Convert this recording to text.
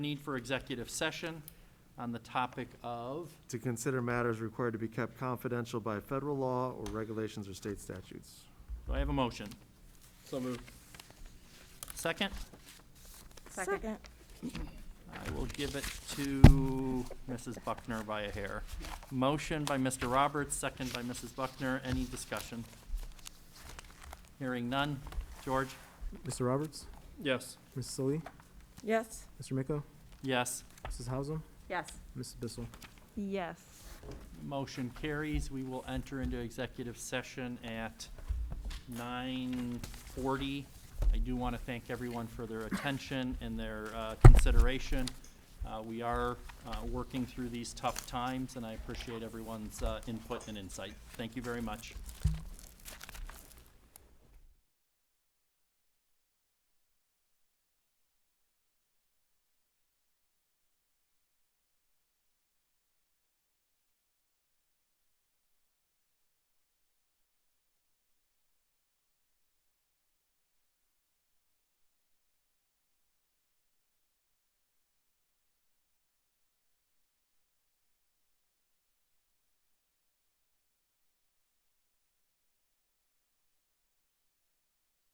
need for executive session on the topic of, to consider matters required to be kept confidential by federal law or regulations or state statutes. do I have a motion? So moved. Second, Second. I will give it to Mrs. Buckner by a hair. Motion by Mr. Roberts, second by Mrs. Buckner. Any discussion? Hearing none. George? Mr. Roberts, Yes. Mrs. Sully, Yes. Mr. Miko, Yes. Mrs. Hausum, Yes. Mrs. Bissell. Yes. Motion carries. We will enter into executive session at nine forty. I do want to thank everyone for their attention and their uh, consideration. Uh, We are uh, working through these tough times, and I appreciate everyone's uh, input and insight. Thank you very much.